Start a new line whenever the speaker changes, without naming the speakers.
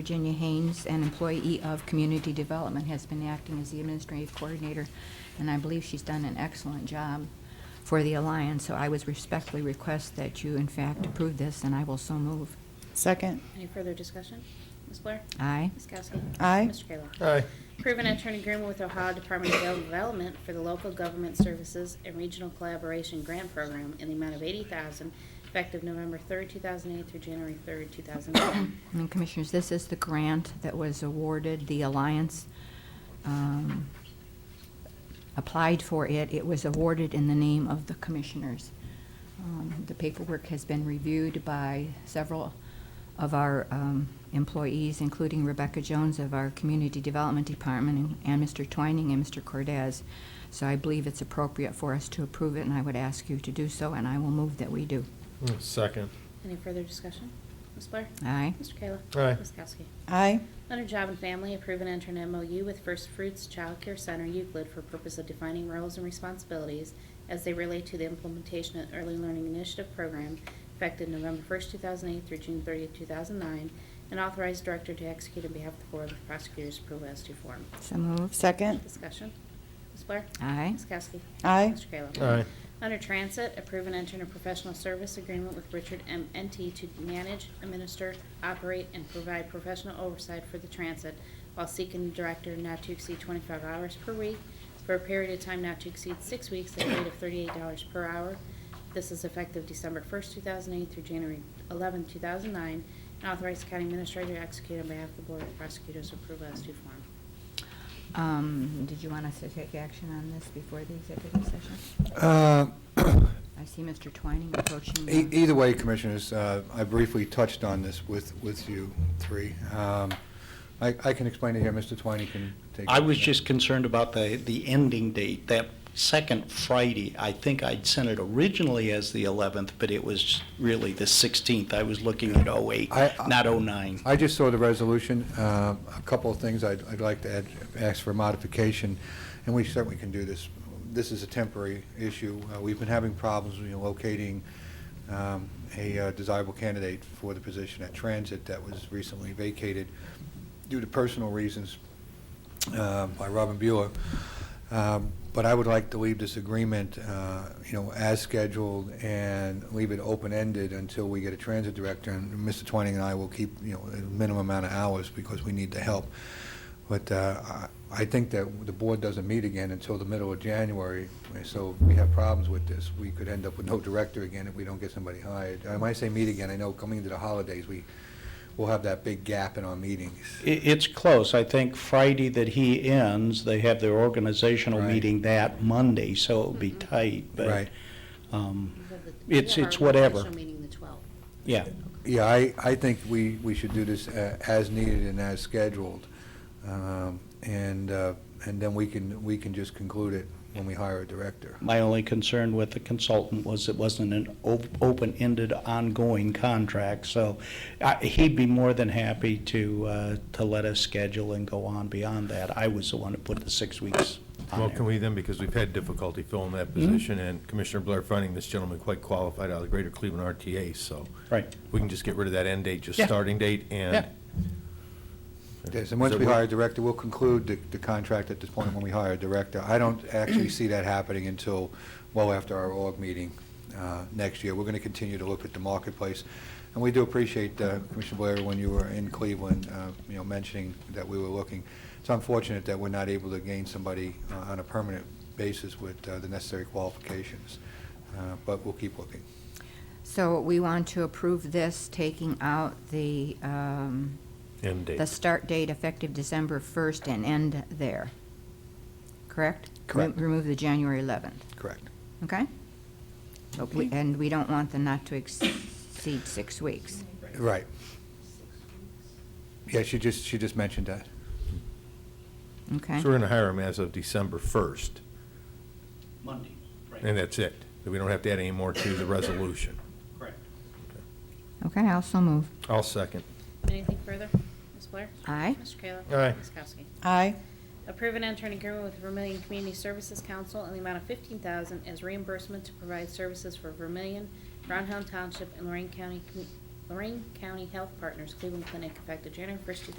Virginia Haynes, an employee of Community Development, has been acting as the administrative coordinator, and I believe she's done an excellent job for the Alliance, so I would respectfully request that you, in fact, approve this, and I will so move.
Second.
Any further discussion? Ms. Blair?
Aye.
Ms. Kowski?
Aye.
Mr. Kayla?
aye,
Approve an intern agreement with Ohio Department of Development for the Local Government Services and Regional Collaboration Grant Program in the amount of eighty thousand, effective November third, two thousand eight through January third, two thousand nine.
And Commissioners, this is the grant that was awarded, the Alliance um, applied for it. It was awarded in the name of the Commissioners. Um, The paperwork has been reviewed by several of our um, employees, including Rebecca Jones of our Community Development Department, and- and Mr. Twining and Mr. Cordez. So I believe it's appropriate for us to approve it, and I would ask you to do so, and I will move that we do.
Mm, second,
Any further discussion? Ms. Blair?
Aye?
Mr. Kayla?
Aye.
Ms. Kowski?
Aye.
Under Job and Family, approve an intern MOU with First Fruits Child Care Center Euclid for purpose of defining roles and responsibilities as they relate to the implementation of Early Learning Initiative Program effective November 1st, 2008 through June 30th, 2009, and authorize director to execute on behalf of the Board of Prosecutors approval as to form.
So moved.
Second.
Discussion. Ms. Blair?
Aye?
Ms. Kowski?
Aye.
Mr. Kayla?
aye,
Under Transit, approve an intern professional service agreement with Richard M. NT to manage, administer, operate, and provide professional oversight for the transit while seeking a director not to exceed 25 hours per week for a period of time not to exceed six weeks at a rate of $38 per hour. This is effective December 1st, 2008 through January 11th, 2009, and authorize the county administrator to execute on behalf of the Board of Prosecutors approval as due form.
Um, Did you want us to take action on this before the executive session?
Uh,
I see Mr. Twining approaching.
e-
the-
Either way, Commissioners, uh, I briefly touched on this with, with you three. Um, I I can explain it here, Mr. Twining can take.
I was just concerned about the, the ending date, that second Friday. I think I'd sent it originally as the 11th, but it was really the 16th. I was looking at 08,
I- I-
not 09.
I just saw the resolution, Um, a couple of things I'd I'd like to add, ask for modification, and we certainly can do this. This is a temporary issue. Uh, We've been having problems, you know, locating um, a uh, desirable candidate for the position at Transit that was recently vacated due to personal reasons uh, by Robin Bueller. Um, But I would like to leave this agreement, uh, you know, as scheduled and leave it open-ended until we get a transit director. And Mr. Twining and I will keep, you know, a minimum amount of hours because we need the help. But uh, I I think that the board doesn't meet again until the middle of January, and so if we have problems with this. We could end up with no director again if we don't get somebody hired. And When I say meet again, I know coming into the holidays, we will have that big gap in our meetings.
It, it's close. I think Friday that he ends, they have their organizational
Right. Mm-hmm.
meeting that Monday, so it'll be tight, but,
Right.
um,
We have the- we
It's-
have
it's
our
whatever.
Special meeting the 12th.
yeah.
Yeah, I, I think we, we should do this uh, as needed and as scheduled. Um, And, uh, and then we can, we can just conclude it when we hire a director.
My only concern with the consultant was it wasn't an o- open-ended, ongoing contract, so I- he'd be more than happy to, uh, to let us schedule and go on beyond that. I was the one who put the six weeks
well,
on
can
there.
we then, because we've had difficulty filling that position, and Commissioner Blair finding this gentleman quite qualified out of the Greater Cleveland RTA, so
Right.
we can just get rid of that end date, just
Yeah.
starting date, and
Yeah.
Yes, and once
So
we
we-
hire a director, we'll conclude the, the contract at this point when we hire a director. I don't actually see that happening until well after our org meeting uh, next year. We're going to continue to look at the marketplace. And we do appreciate, uh, Commissioner Blair, when you were in Cleveland, uh, you know, mentioning that we were looking. It's unfortunate that we're not able to gain somebody uh, on a permanent basis with uh, the necessary qualifications, Uh, but we'll keep looking.
So we want to approve this, taking out the, um,
end
the
date.
start date effective December 1st and end there, correct? Remo-
Correct.
Remove the January 11th,
Correct.
okay? So we- And we don't want the not to exceed six weeks.
Right. Yeah, she just, she just mentioned that.
Okay.
So we're gonna hire him as of December first,
Monday,
and that's it. We don't have to add any more to the resolution.
correct.
Okay, I'll so move.
I'll second.
Anything further? Ms. Blair?
Aye.
Mr. Kayla?
Aye.
Ms. Kowski?
Aye.
Approve an intern agreement with Vermillion Community Services Council in the amount of fifteen thousand as reimbursement to provide services for Vermillion, Brown Hill Township, and Lorraine County commu- Lorraine County Health Partners Cleveland Clinic effective January 1st, 2019